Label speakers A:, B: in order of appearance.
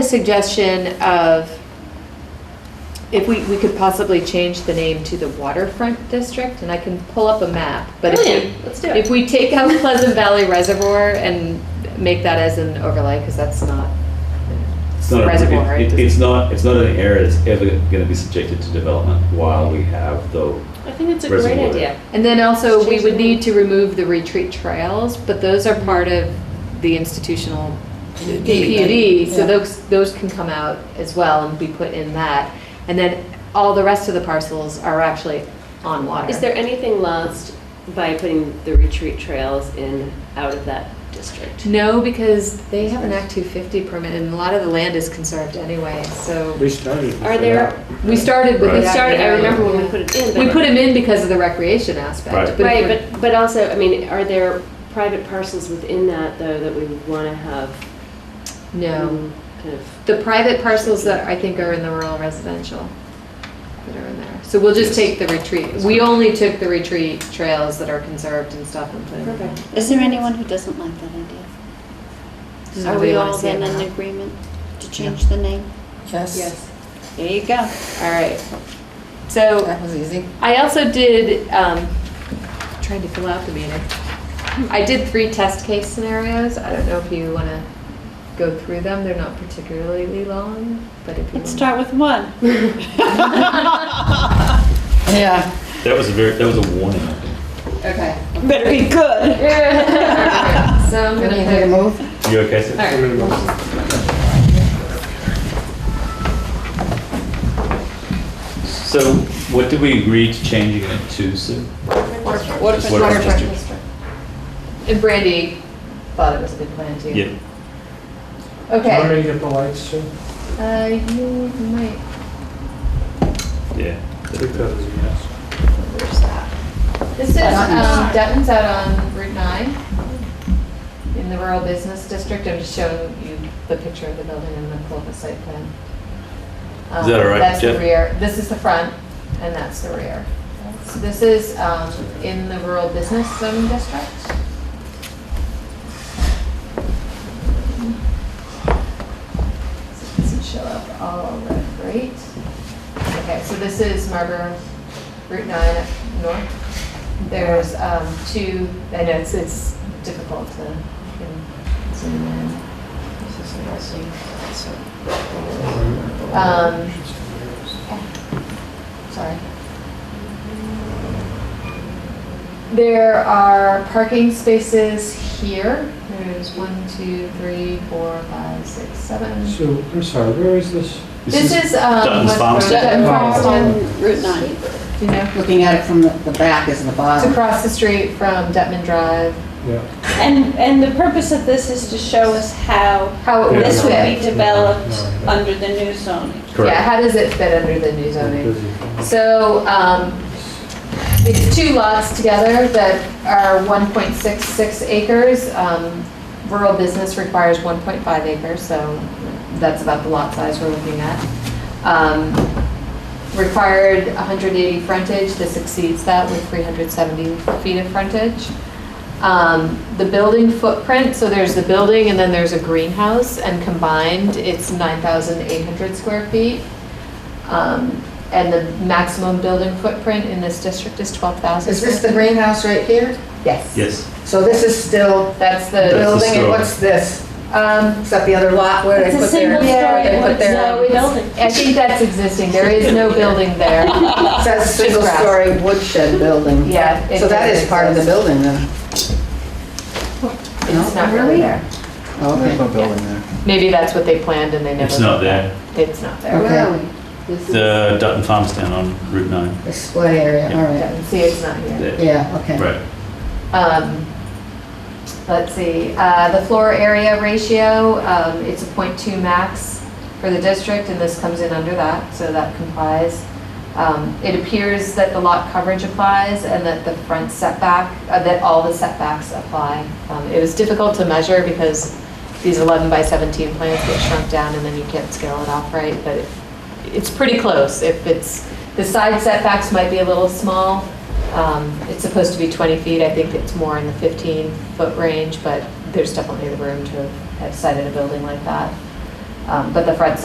A: suggestion of if we, we could possibly change the name to the waterfront district, and I can pull up a map, but if we,
B: Brilliant, Oh, let's do
A: if
B: it.
A: we take out Pleasant Valley Reservoir and make that as an overlay, because that's not
C: It's not, a-
A: reservoir.
C: it-
A: it
C: it-
A: doesn't-
C: it's not, it's not an area that's ever gonna be subjected to development while we have the,
B: I think it's a great
C: Reservoir.
B: idea.
A: And then also, we
B: Change the
A: would need
B: name. Mm-hmm.
A: to remove the retreat trails, but those are part of the institutional PUD, so
D: yeah.
A: those, those can come out as well and be put in that. And then all the rest of the parcels are actually on water.
B: Is there anything lost by putting the retreat trails in, out of that district?
A: No, because they have an Act 250 permit, and a lot of the land is conserved anyway, so
E: We started.
B: Are there,
A: we started with
C: Right.
B: we
A: the
B: started, I remember when we
A: Yeah.
B: put it in, but.
A: We put them in because of the recreation aspect.
C: Right.
A: if we're-
B: Right, but, but also, I mean, are there private parcels within that, though, that we would want to have?
A: No.
B: um, Kind of,
A: The private parcels that I think are in the rural residential that are in there. So we'll just take the retreat. We only took the retreat trails that are conserved and stuff and put them in.
B: perfect.
F: Is there anyone who doesn't like that idea?
A: Does
F: Are
A: anybody
F: we
A: wanna
F: all
A: see it
F: then
A: now?
F: in agreement to change the name?
D: Yes,
F: There you go.
A: All right. So
D: that was easy.
A: I also did, um, trying to fill out the meeting. I did three test case scenarios. I don't know if you want to go through them. They're not particularly long, but if you want-
F: Let's start with one.
D: Yeah,
C: that was a very, that was a warning, I think.
D: okay.
F: Better be good.
A: So I'm gonna
D: Anything to
A: pick.
D: move?
C: You okay, sir?
A: All right.
C: So what did we agree to changing it to, Sue? Just
D: Waterfront
C: waterfront
D: district.
C: district.
A: And Brandy thought it was a good plan too.
C: Yeah,
A: Okay.
E: Turning up the lights, too.
A: Uh, you might,
E: I
C: yeah.
E: think that was a yes.
A: where's that? This is, um, Dutton's out on Route 9, in the rural business district, I'm just showing you the picture of the building and the Clovis site plan.
C: Is that all right,
A: Um, That's the
C: Jeff?
A: rear, this is the front, and that's the rear. So this is, um, in the rural business zone district. So it doesn't show up all red, great. Okay, so this is Marlboro Route 9 up north. There's um, two, I know it's, it's difficult to you know, zoom in. Um, Sorry. There are parking spaces here. There's one, two, three, four, five, six, seven.
E: So, I'm sorry, where is this?
A: This is, um.
C: Dutton's
A: West Dutton
C: Farmstead.
F: Oh,
A: Farmstead.
F: On Route 9.
A: You know,
D: Looking at it from the the back is the
A: it's
D: bottom.
A: across the street from Detman Drive,
E: Yeah.
G: And, and the purpose of this is to show us how
A: how it would
G: this would be
A: fit.
G: developed
E: No, no.
G: under the new zoning.
A: Yeah,
C: Correct.
A: how does it fit under the new zoning?
E: Busy.
A: So, um, it's two lots together that are 1.66 acres. Um, Rural business requires 1.5 acres, so that's about the lot size we're looking at. Um, Required 180 frontage, this exceeds that with 370 feet of frontage. Um, The building footprint, so there's the building and then there's a greenhouse, and combined, it's 9,800 square feet. Um, And the maximum building footprint in this district is 12,000.
D: Is this the greenhouse right here?
A: Yes.
C: Yes,
D: So this is still
A: That's
C: That's
A: the,
D: building, and
C: store.
D: what's this?
A: um,
D: Is that the other lot where they
G: It's a
D: put their?
G: single
A: Yeah,
G: story,
A: they put
G: one
A: their-
G: story building.
A: I think that's existing. There is no building there.
D: It says
A: just
D: single
A: grass.
D: story woodshed building.
A: Yeah. it
D: So that
A: does
D: is part of the
A: exist.
D: building then?
A: It's not really there.
D: Okay.
A: Maybe that's what they planned and they never.
C: it's not there.
A: It's not there.
D: Okay.
A: This is-
C: The Dutton Farmstead on Route 9.
D: Display area, all right.
A: yeah, See, it's not here.
C: There.
D: Yeah, okay.
C: Right.
A: Um, Let's see, uh, the floor area ratio, um, it's a .2 max for the district, and this comes in under that, so that complies. Um, It appears that the lot coverage applies and that the front setback, uh, that all the setbacks apply. Um, It was difficult to measure because these 11 by 17 plans get shrunk down and then you can't scale it off right, but it- it's pretty close. If it's, the side setbacks might be a little small. Um, It's supposed to be 20 feet, I think it's more in the 15-foot range, but there's definitely the room to have sited a building like that. Um, Um, But the front